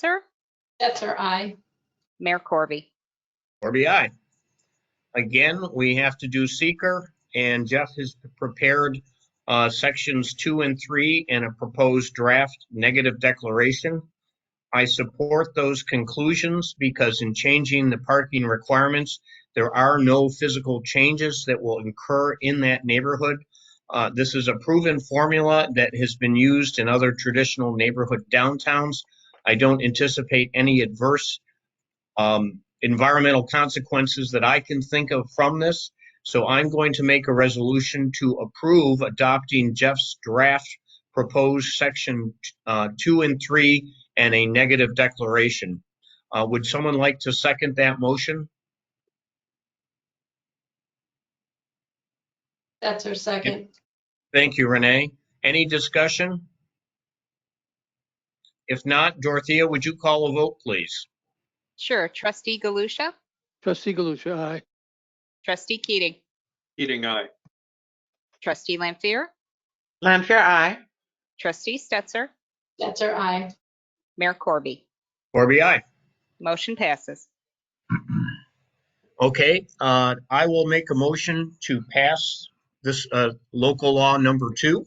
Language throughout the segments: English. Sir? Stetser, aye. Mayor Corby. RBI. Again, we have to do seeker, and Jeff has prepared uh, sections two and three and a proposed draft negative declaration. I support those conclusions because in changing the parking requirements, there are no physical changes that will incur in that neighborhood. Uh, This is a proven formula that has been used in other traditional neighborhood downtowns. I don't anticipate any adverse um, environmental consequences that I can think of from this. So I'm going to make a resolution to approve adopting Jeff's draft proposed section uh, two and three and a negative declaration. Uh, Would someone like to second that motion? Stetser, second. Thank you, Renee. Any discussion? If not, Dorothea, would you call a vote, please? Sure. Trustee Galusha? Trustee Galusha, aye. Trustee Keating? Keating, aye. Trustee Lampier? Lampier, aye. Trustee Stetser? Stetser, aye. Mayor Corby. Corby, aye. Motion passes. Okay, uh, I will make a motion to pass this, uh, local law number two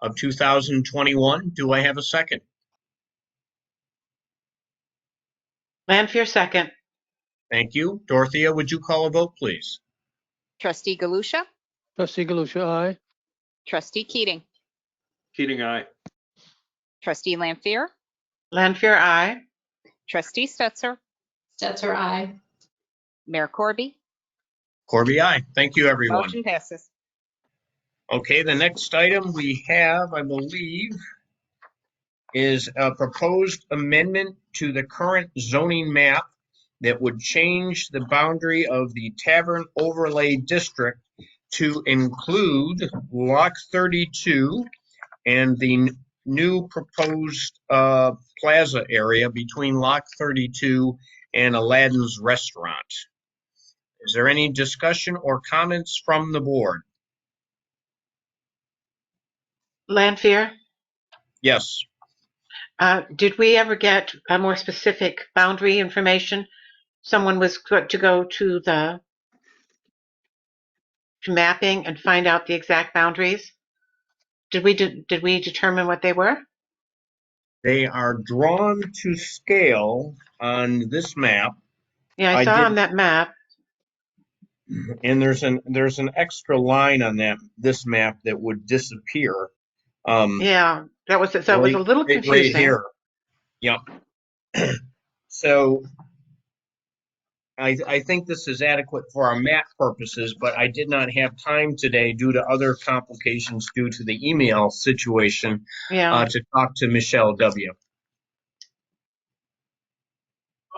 of 2021. Do I have a second? Lampier, second. Thank you. Dorothea, would you call a vote, please? Trustee Galusha? Trustee Galusha, aye. Trustee Keating? Keating, aye. Trustee Lampier? Lampier, aye. Trustee Stetser? Stetser, aye. Mayor Corby. Corby, aye. Thank you, everyone. Motion passes. Okay, the next item we have, I believe, is a proposed amendment to the current zoning map that would change the boundary of the Tavern Overlay District to include Block 32 and the n- new proposed uh, plaza area between Lock 32 and Aladdin's Restaurant. Is there any discussion or comments from the board? Lampier, Yes. uh, did we ever get a more specific boundary information? Someone was go- to go to the to mapping and find out the exact boundaries? Did we, de- did we determine what they were? They are drawn to scale on this map, Yeah, I I saw did- on that map. and there's an, there's an extra line on that, this map that would disappear. Um, Yeah, that was, so it was a little right- confusing. right here. Yep. So I, I think this is adequate for our map purposes, but I did not have time today due to other complications due to the email situation, Yeah, uh, to talk to Michelle W.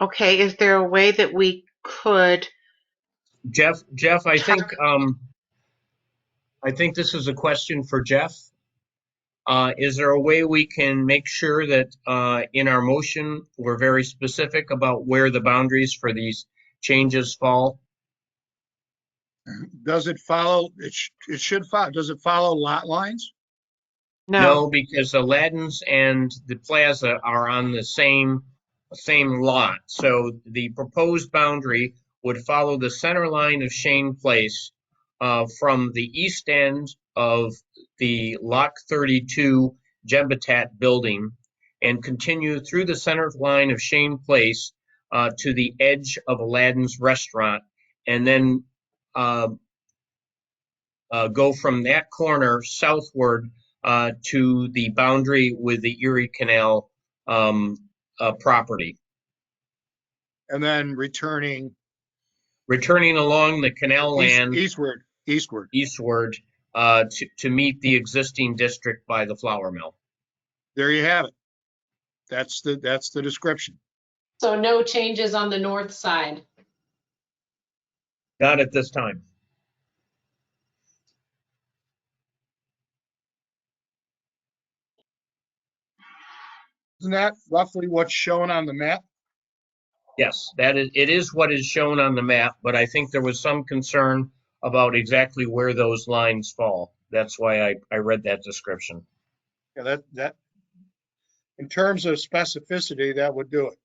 okay, is there a way that we could Jeff, Jeff, I think, um, I think this is a question for Jeff. Uh, is there a way we can make sure that, uh, in our motion, we're very specific about where the boundaries for these changes fall? Does it follow, it, sh- it should follow, does it follow lot lines? No, because Aladdin's and the plaza are on the same, same lot. So the proposed boundary would follow the center line of Shane Place uh, from the east end of the Lock 32 Gembitat building and continue through the center line of Shane Place uh, to the edge of Aladdin's Restaurant and then uh, uh, go from that corner southward uh, to the boundary with the Erie Canal um, uh, property. And then returning Returning along the canal east- land eastward, eastward. eastward uh, to, to meet the existing district by the flour mill. There you have it. That's the, that's the description. So no changes on the north side. Not at this time. Isn't that roughly what's shown on the map? Yes, that is, it is what is shown on the map, but I think there was some concern about exactly where those lines fall. That's why I, I read that description. Yeah, that, that, in terms of specificity, that would do it.